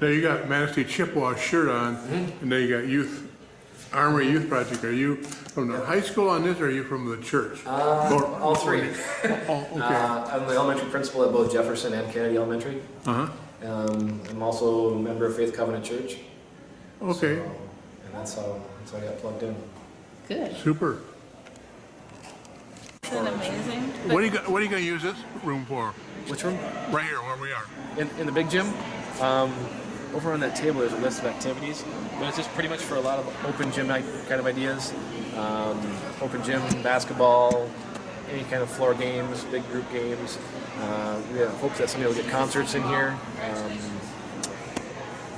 Now, you got Manistee Chippewa shirt on, Mm-hmm. and now you got youth, Armory Youth Project. Are you from the high school on this, or are you from the church? Uh, Or- all three. Oh, Uh-huh. okay. Uh, I'm the elementary principal at both Jefferson and Kennedy Elementary. Uh-huh, Um, I'm also a member of Faith Covenant Church. okay, So, And that's how, that's how I got plugged in. Good. super. Isn't that amazing? What are you, go- what are you gonna use this room for? Which room? Right here, where we are. In, in the big gym. Um, over on that table, there's a list of activities, but it's just pretty much for a lot of open gym night kind of ideas. Um, open gym, basketball, any kind of floor games, big group games. Uh, we have hopes that somebody will get concerts in here. Um,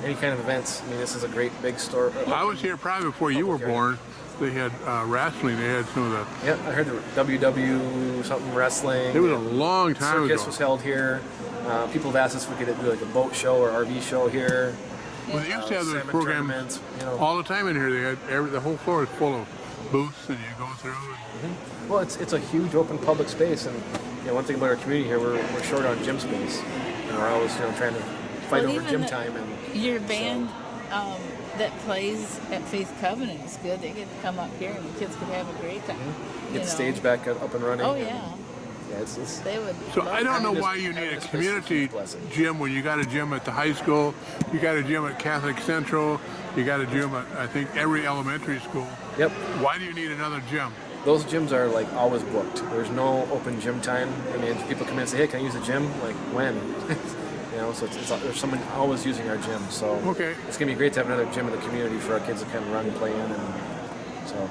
any kind of events. I mean, this is a great big store. Uh, I was here probably before you were born. They had uh, wrestling, they had some of Yeah, I heard the WW something wrestling. the, it was a long time ago. circus was held here. Uh, people have asked us if we could do like a boat show or RV show here. Well, they used to uh, have those salmon programs tournaments, you know. all the time in here. They had every, the whole floor is full of booths, and you go through. And, Well, it's it's a huge open public space, and you know, one thing about our community here, we're, we're short on gym space. And we're always you know trying to fight Well, over even gym the- time and. Your band um, that plays at Faith Covenant is good. They get to come up here and the kids could have a great time. Get you the know. stage back up up and running. Oh, and, yeah. yeah, it's, it's They would. so love I that. don't know Having why this- you need having a this place is community pleasant. gym when you got a gym at the high school, you got a gym at Catholic Central, you got a gym at I think every elementary school. yep. Why do you need another gym? Those gyms are like always booked. There's no open gym time. I mean, people come in and say, "Hey, can I use the gym?" Like when? you know, so it's, it's there's someone always using our gym. So Okay. it's gonna be great to have another gym in the community for our kids to kind of run and play in. And so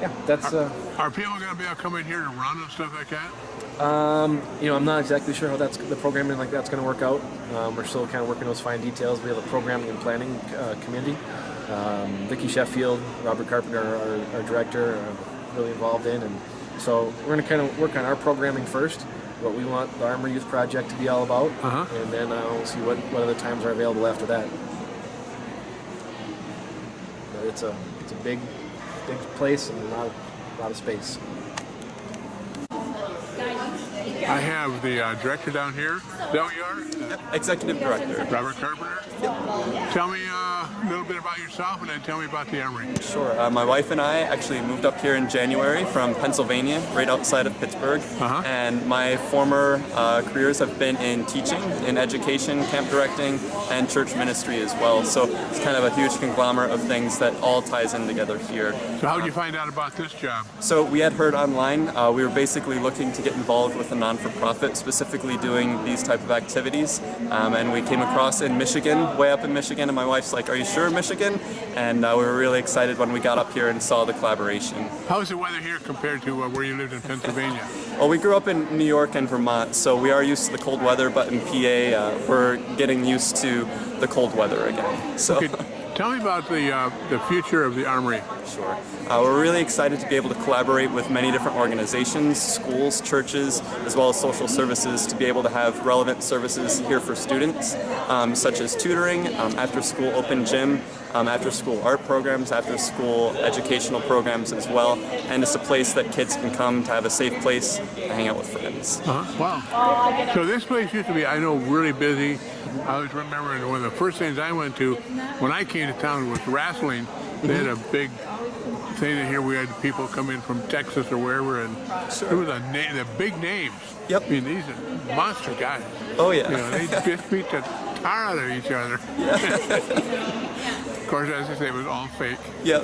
yeah, that's. Uh, Are people going to be able to come in here to run and stuff like that? you know, I'm not exactly sure how that's the programming like that's going to work out. Um, we're still kind of working those fine details. We have a programming and planning uh, committee. Um, Vicky Sheffield, Robert Carpenter, our, our director, are really involved in, and so we're going to kind of work on our programming first. What we want the Armor Youth Project to be all about, Uh-huh. and then uh, we'll see what, what other times are available after that. But it's a it's a big big place and a lot of, a lot of space. I have the uh, director down here. Is that what you are? Executive Director. Robert Carpenter? Tell me uh, a little bit about yourself and then tell me about the Armory. Sure. Uh, my wife and I actually moved up here in January from Pennsylvania, right outside of Pittsburgh. Uh-huh. And my former uh, careers have been in teaching, in education, camp directing, and church ministry as well. So it's kind of a huge conglomerate of things that all ties in together here. So how did you find out about this job? So we had heard online, uh, we were basically looking to get involved with a non-for-profit, specifically doing these type of activities. Um, and we came across in Michigan, way up in Michigan, and my wife's like, "Are you sure, Michigan?" And uh, we were really excited when we got up here and saw the collaboration. How's the weather here compared to uh, where you lived in Pennsylvania? Well, we grew up in New York and Vermont, so we are used to the cold weather. But in PA, uh, we're getting used to the cold weather again. So. Okay, tell me about the uh, the future of the Armory. Sure. Uh, we're really excited to be able to collaborate with many different organizations, schools, churches, as well as social services to be able to have relevant services here for students, um, such as tutoring, um, after school open gym, um, after school art programs, after school educational programs as well. And it's a place that kids can come to have a safe place to hang out with friends. Uh-huh. Wow. So this place used to be, I know, really busy. I was remembering one of the first things I went to when I came to town was wrestling. They had a big thing in here. We had people come in from Texas or wherever, and it was a name, the big names. Yep. I mean, these are monster guys. Oh, You know, yeah. they just beat the tar out of each other. of course, as I say, it was all fake. Yeah.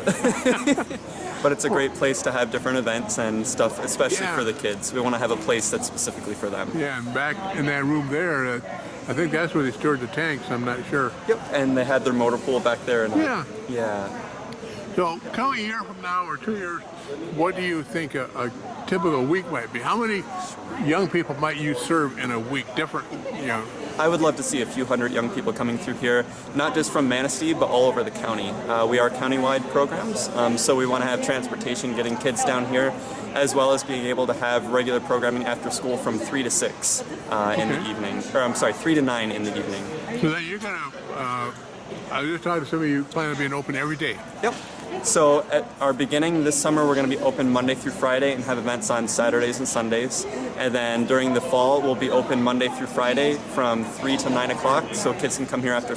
but it's a great place to have different events and stuff, especially Yeah. for the kids. We want to have a place that's specifically for them. Yeah, and back in that room there, uh, I think that's where they stored the tanks. I'm not sure. Yep. And they had their motor pool back there. And Yeah. Yeah. So, tell me a year from now or two years, what do you think a, a typical week might be? How many young people might you serve in a week? Different, you know. I would love to see a few hundred young people coming through here, not just from Manistee, but all over the county. Uh, we are countywide programs, um, so we want to have transportation getting kids down here, as well as being able to have regular programming after school from 3 to 6 uh, in the Okay. evening. Or I'm sorry, 3 to 9 in the evening. So then you're gonna. Uh, I was just talking to somebody. You plan on being open every day. Yep. So at our beginning this summer, we're going to be open Monday through Friday and have events on Saturdays and Sundays. And then during the fall, we'll be open Monday through Friday from 3 to 9 o'clock, so kids can come here after